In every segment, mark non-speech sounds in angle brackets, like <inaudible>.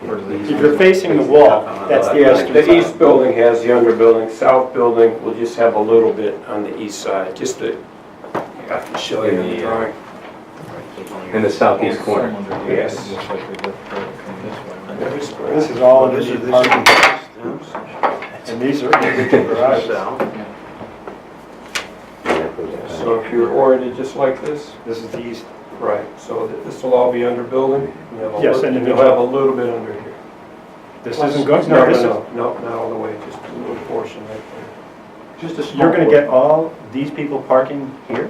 If you're facing the wall, that's the eastern Uh, The east side. building has younger building, south building will just have a little bit on the east side, just to, I can show you in the uh, drawing. in the southeast corner. Yes. Yes. This is all underneath parking, and these are individual <laughs> garages. So if you're oriented just like this, This is the east, right, so th- this will all be under building. and you'll have a Yes, lit- and You'll have a little bit under here. this isn't going, no, this is, No, not all the way, just a little portion right Just a small. you're gonna get all these people parking here?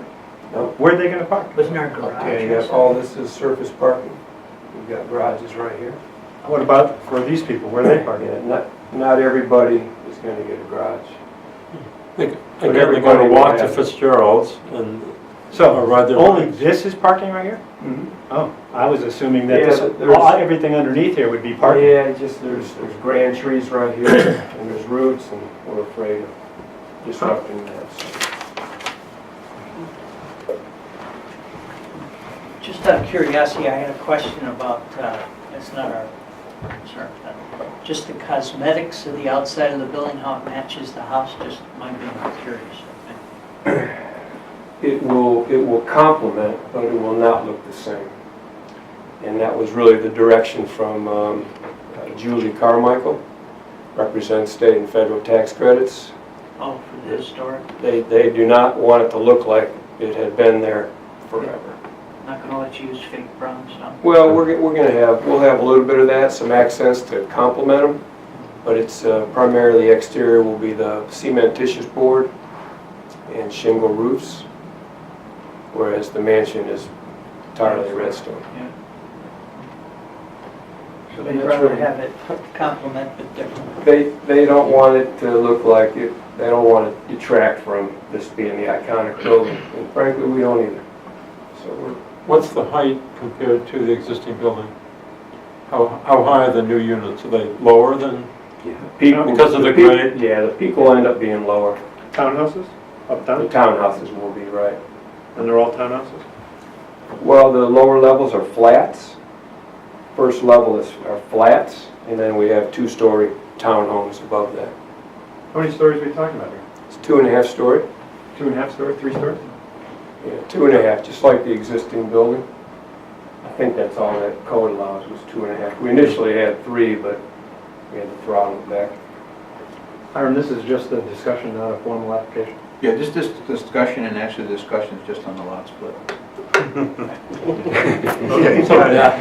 Nope. Where are they gonna park? Wasn't our there. garage? Okay, you got all this is surface parking. We've got garages right here. What about for these people, where are they Yeah, parking? not, not everybody is gonna get a garage. Again, they're everybody gonna will walk to have it. Fitzgerald's and, So, Or rather- only this is parking right here? Oh, I was assuming that this, Yeah, but there's- all- everything underneath here would be parking. Yeah, just, there's, there's grand trees right here, and there's roots, and we're afraid of disrupting that. so. Just out of curiosity, I had a question about, uh, it's not our concern, but just the cosmetics of the outside of the building, how it matches the house, just my being curious. It will, it will complement, but it will not look the same. And that was really the direction from um, Julie Carmichael, represents state and federal tax credits. Oh, for the historic, They, they do not want it to look like it had been there forever. not gonna let you use fake brown stuff. Well, we're, go- we're gonna have, we'll have a little bit of that, some accents to complement them, but it's uh, primarily exterior will be the cementitious board and shingle roofs, whereas the mansion is entirely redstone. So they'd rather have it complement but different. They, they don't want it to look like it, they don't want to detract from this being the iconic building, and frankly, we don't either. So we're, what's the height compared to the existing building? How, how high are the new units? Are they lower than? peak- Because of the peak- grade? Yeah, the peak will end up being lower. Townhouses, The uptown, townhouses will be, right. and they're all townhouses? Well, the lower levels are flats. First level is, are flats, and then we have two-story townhomes above that. How many stories are we talking about here? It's two and a half story, Two and a half story, three stories? yeah, two and a half, just like the existing building. I think that's all that code allows was two and a half. We initially had three, but we had to throttle it back. Hiram, this is just a discussion, not a formal application. Yeah, just this discussion and actually discussion is just on the lot <laughs> split.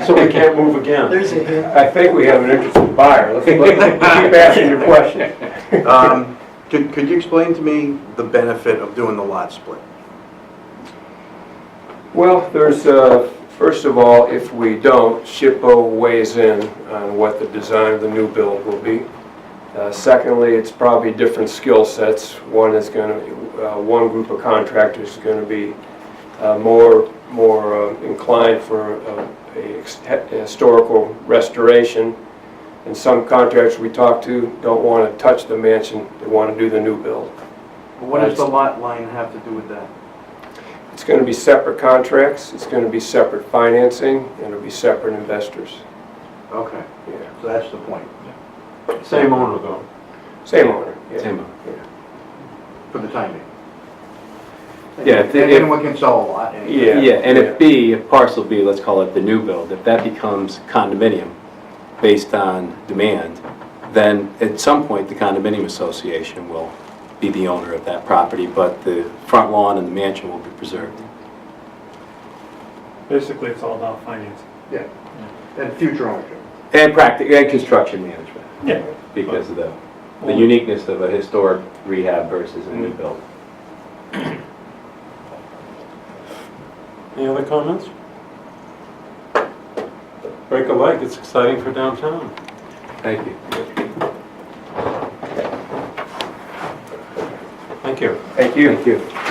So we can't move again. There's a hint. I think we have an interested buyer. Let's let's keep asking your question. Um, Could, could you explain to me the benefit of doing the lot split? Well, there's, uh, first of all, if we don't, SHPO weighs in on what the design of the new build will be. Uh, Secondly, it's probably different skill sets. One is going to, one group of contractors is going to be uh, more, more uh, inclined for uh, a ex- he- historical restoration. And some contractors we talk to don't want to touch the mansion, they want to do the new build. What does the lot line have to do with that? It's going to be separate contracts, it's going to be separate financing, and it'll be separate investors. Okay, Yeah. so that's the point, Same owner though. Same owner. yeah. Same owner. for the timing. Yeah, if- if- Anyone can sell a lot. and- Yeah. Yeah, and if B, if parcel B, let's call it the new build, if that becomes condominium based on demand, then at some point, the condominium association will be the owner of that property, but the front lawn and the mansion will be preserved. Basically, it's all about financing. And future ownership. And practic, and construction management, Yeah. because of the, the uniqueness of a historic rehab versus a new build. Any other comments? Break a leg, it's exciting for downtown. Thank you. Thank you. Thank you. Thank you.